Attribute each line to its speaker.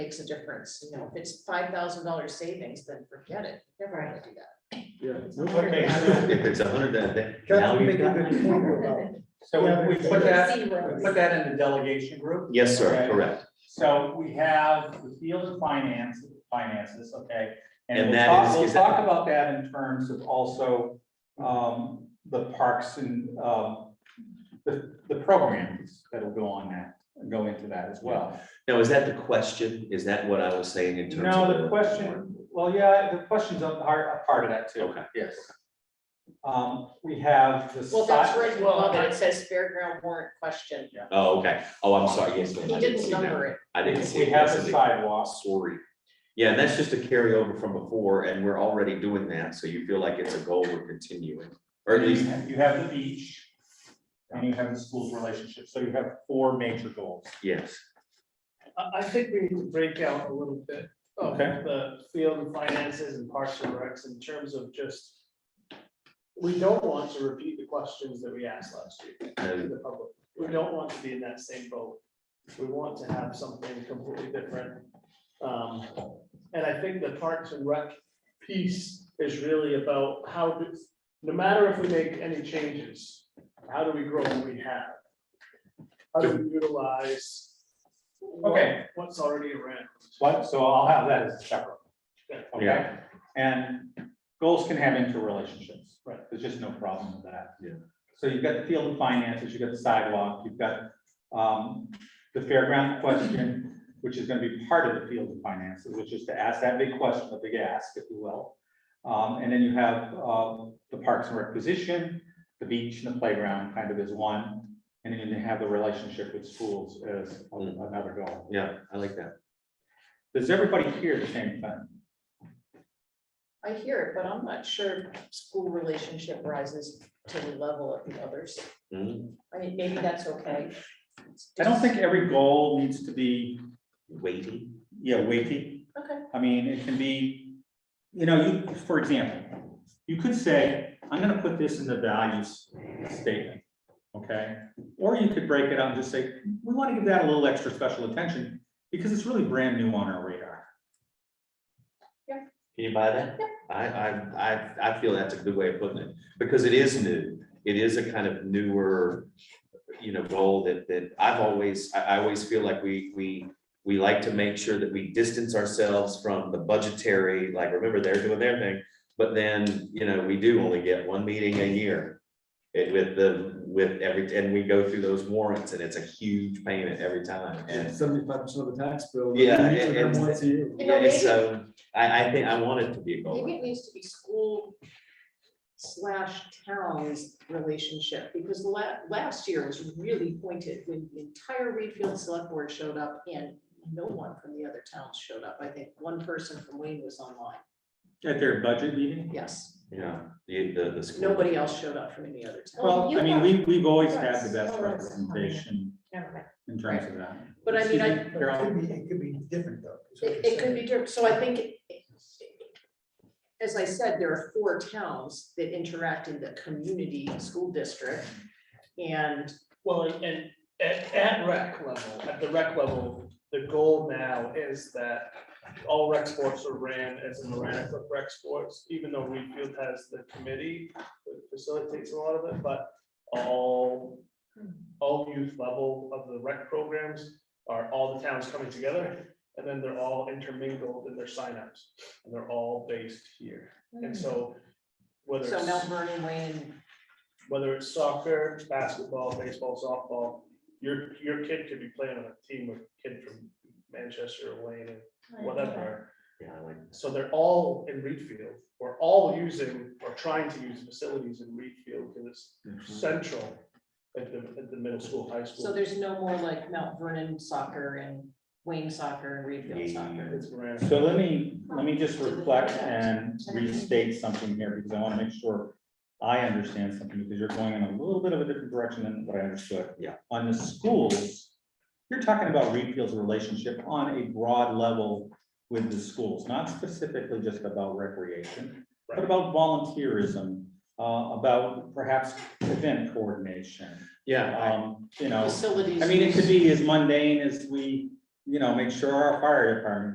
Speaker 1: makes a difference, you know, if it's five thousand dollar savings, then forget it, never gonna do that.
Speaker 2: Yeah.
Speaker 1: Okay.
Speaker 3: If it's a hundred, then- then. now
Speaker 2: That's
Speaker 3: you've
Speaker 2: making
Speaker 3: got-
Speaker 2: a good point about.
Speaker 4: So we we put that,
Speaker 1: See what-
Speaker 4: we put that in the delegation group.
Speaker 3: Yes, sir,
Speaker 4: Okay.
Speaker 3: correct.
Speaker 4: So we have the field of finance, finances, okay?
Speaker 3: And
Speaker 4: And we'll
Speaker 3: that
Speaker 4: talk,
Speaker 3: is-
Speaker 4: we'll
Speaker 3: is that-
Speaker 4: talk about that in terms of also, um, the parks and, um, the, the programs that'll go on that, go into that as well.
Speaker 3: Now, is that the question? Is that what I was saying in terms of?
Speaker 4: No, the question, well, yeah, the question's a part, a part of that too.
Speaker 3: Okay.
Speaker 4: Yes. Um, we have the.
Speaker 1: Well, that's
Speaker 4: si-
Speaker 1: right, well, it says fairground warrant question,
Speaker 3: Oh, okay. Oh, I'm sorry. Yes. ma'am, I
Speaker 1: he
Speaker 3: didn't
Speaker 1: didn't
Speaker 3: see that.
Speaker 1: number it.
Speaker 3: I didn't see.
Speaker 4: We
Speaker 3: it.
Speaker 4: have
Speaker 3: That's
Speaker 4: the
Speaker 3: a-
Speaker 4: sidewalks.
Speaker 3: Sorry. Yeah, and that's just a carryover from before, and we're already doing that, so you feel like it's a goal we're continuing, or at least,
Speaker 4: You have the beach, and you have the school's relationship, so you have four major goals.
Speaker 3: yes.
Speaker 5: I, I think we need to break out a little bit of
Speaker 4: Okay.
Speaker 5: the field and finances and parks and recs in terms of just. We don't want to repeat the questions that we asked last year to
Speaker 3: And
Speaker 5: the public. We don't want to be in that same boat. We want to have something completely different. Um, and I think the parks and rec piece is really about how, do- no matter if we make any changes, how do we grow what we have? How do we utilize? what-
Speaker 4: Okay.
Speaker 5: What's already around?
Speaker 4: What, so I'll have that as a separate. okay?
Speaker 3: Yeah.
Speaker 4: And goals can have interrelationships.
Speaker 5: Right.
Speaker 4: There's just no problem with that.
Speaker 3: Yeah.
Speaker 4: So you've got the field of finances, you've got the sidewalk, you've got, um, the fairground question, which is gonna be part of the field of finances, which is to ask that big question, the big ask, if you will. Um, and then you have, uh, the parks and requisition, the beach and the playground kind of is one. And then you have the relationship with schools as another goal.
Speaker 3: yeah, I like that.
Speaker 4: Does everybody hear the same thing?
Speaker 1: I hear it, but I'm not sure school relationship rises to the level of the others.
Speaker 3: Mm,
Speaker 1: I mean, maybe that's okay.
Speaker 4: I don't think every goal needs to be,
Speaker 3: Weighty,
Speaker 4: yeah, weighty.
Speaker 1: Okay,
Speaker 4: I mean, it can be, you know, you, for example, you could say, I'm gonna put this in the values statement, okay? Or you could break it out and just say, we wanna give that a little extra special attention because it's really brand new on our radar.
Speaker 3: can you buy that? I, I, I, I feel that's a good way of putting it, because it is new, it is a kind of newer, you know, goal that, that I've always, I, I always feel like we, we, we like to make sure that we distance ourselves from the budgetary, like, remember, they're doing their thing, but then, you know, we do only get one meeting a year. It with the, with every, and we go through those warrants, and it's a huge payment every time, and
Speaker 2: Seventy-five percent of the tax bill.
Speaker 3: Yeah,
Speaker 2: We meet with them
Speaker 3: and-
Speaker 2: once a year.
Speaker 1: You know,
Speaker 3: Yeah, it's, um, I, I think I want it to be a goal.
Speaker 1: maybe it needs to be school slash towns relationship, because la- last year was really pointed when the entire Reedfield Select Board showed up and no one from the other towns showed up. I think one person from Wayne was online.
Speaker 4: At their budget meeting?
Speaker 1: Yes,
Speaker 3: Yeah, the, the, the school.
Speaker 1: nobody else showed up from any other town.
Speaker 4: Well, I mean, we, we've always had
Speaker 6: Oh,
Speaker 4: the best
Speaker 6: that's-
Speaker 4: representation in terms of that.
Speaker 1: But I mean, I,
Speaker 4: Excuse me, Carol?
Speaker 2: It could be different though. is what
Speaker 1: It,
Speaker 2: you're
Speaker 1: it could
Speaker 2: saying.
Speaker 1: be different, so I think, as I said, there are four towns that interact in the community school district. And
Speaker 5: Well, and- and at, at rec level, at the rec level, the goal now is that all rec sports are ran as an Aranacliff rec sports, even though Reedfield has the committee that facilitates a lot of it, but all, all youth level of the rec programs are all the towns coming together, and then they're all intermingled in their signups, and they're all based here. And so whether
Speaker 1: so
Speaker 5: it's-
Speaker 1: Mount Vernon, Wayne,
Speaker 5: whether it's soccer, basketball, baseball, softball, your, your kid could be playing on a team with a kid from Manchester or Wayne and whatever.
Speaker 3: Yeah, I like,
Speaker 5: So they're all in Reedfield. We're all using or trying to use facilities in Reedfield because it's central at the, at the middle school, high
Speaker 1: so
Speaker 5: school.
Speaker 1: there's no more like Mount Vernon soccer and Wayne soccer and Reedfield soccer.
Speaker 5: It's Miranda.
Speaker 4: So let me, let me just reflect and restate something here, because I want to make sure I understand something, because you're going in a little bit of a different direction than what I understood.
Speaker 3: Yeah.
Speaker 4: On the schools, you're talking about Reedfield's relationship on a broad level with the schools, not specifically just about recreation, but
Speaker 5: Right.
Speaker 4: about volunteerism, uh, about perhaps event coordination,
Speaker 3: yeah,
Speaker 4: um, you know.
Speaker 1: Facilities.
Speaker 4: I mean, it
Speaker 1: use-
Speaker 4: could be as mundane as we you know, make sure our fire department